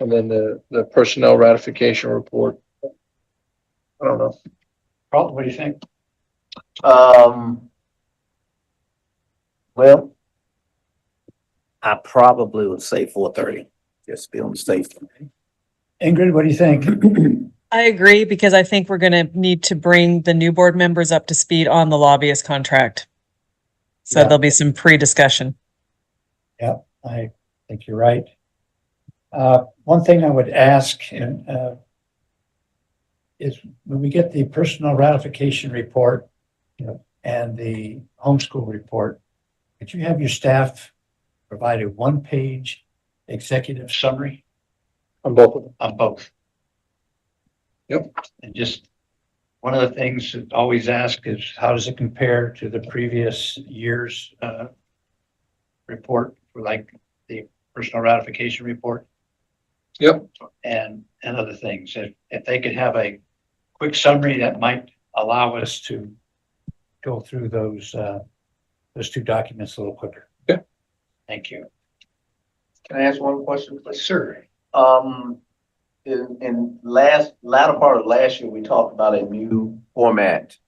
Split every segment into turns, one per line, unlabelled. And then the, the personnel ratification report. I don't know.
Carlton, what do you think?
Um. Well. I probably would say four thirty, just be on the safe.
Ingrid, what do you think?
I agree because I think we're going to need to bring the new board members up to speed on the lobbyist contract. So
Yeah.
there'll be some pre-discussion.
I think you're right. Uh, one thing I would ask and, uh, is when we get the personal ratification report, you know, and the homeschool report, could you have your staff provide a one-page executive summary
On both of them.
on both?
Yep.
And just, one of the things that always ask is how does it compare to the previous year's, uh, report, for like the personal ratification report?
Yep.
and, and other things. If, if they could have a quick summary, that might allow us to go through those, uh, those two documents a little quicker.
Yeah.
Thank you.
Can I ask one question, please?
Sir.
Um, in, in last, latter part of last year, we talked about a new format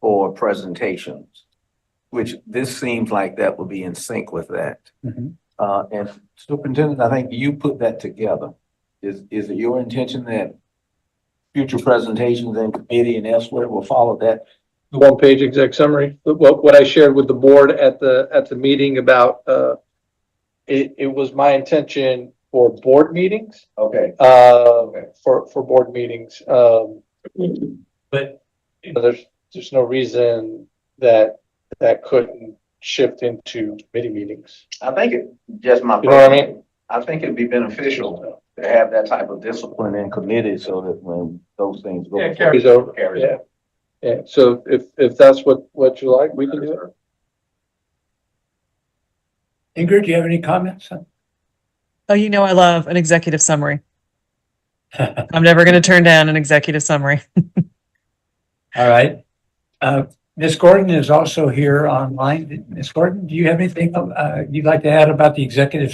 for presentations, which this seems like that would be in sync with that.
Mm-hmm.
Uh, and Superintendent, I think you put that together. Is, is it your intention that future presentations in committee and elsewhere will follow that?
The one-page exec summary, but what, what I shared with the board at the, at the meeting about, uh, it, it was my intention for board meetings,
Okay.
uh, for, for board meetings, um,
But
you know, there's, there's no reason that, that couldn't shift into committee meetings.
I think it, just my.
You know what I mean?
I think it'd be beneficial to have that type of discipline in committee so that when those things go.
Yeah, carries over. Yeah. Yeah, so if, if that's what, what you like, we can do it.
Ingrid, do you have any comments?
Oh, you know, I love an executive summary. I'm never going to turn down an executive summary.
All right. Uh, Ms. Gordon is also here online. Ms. Gordon, do you have anything, uh, you'd like to add about the executive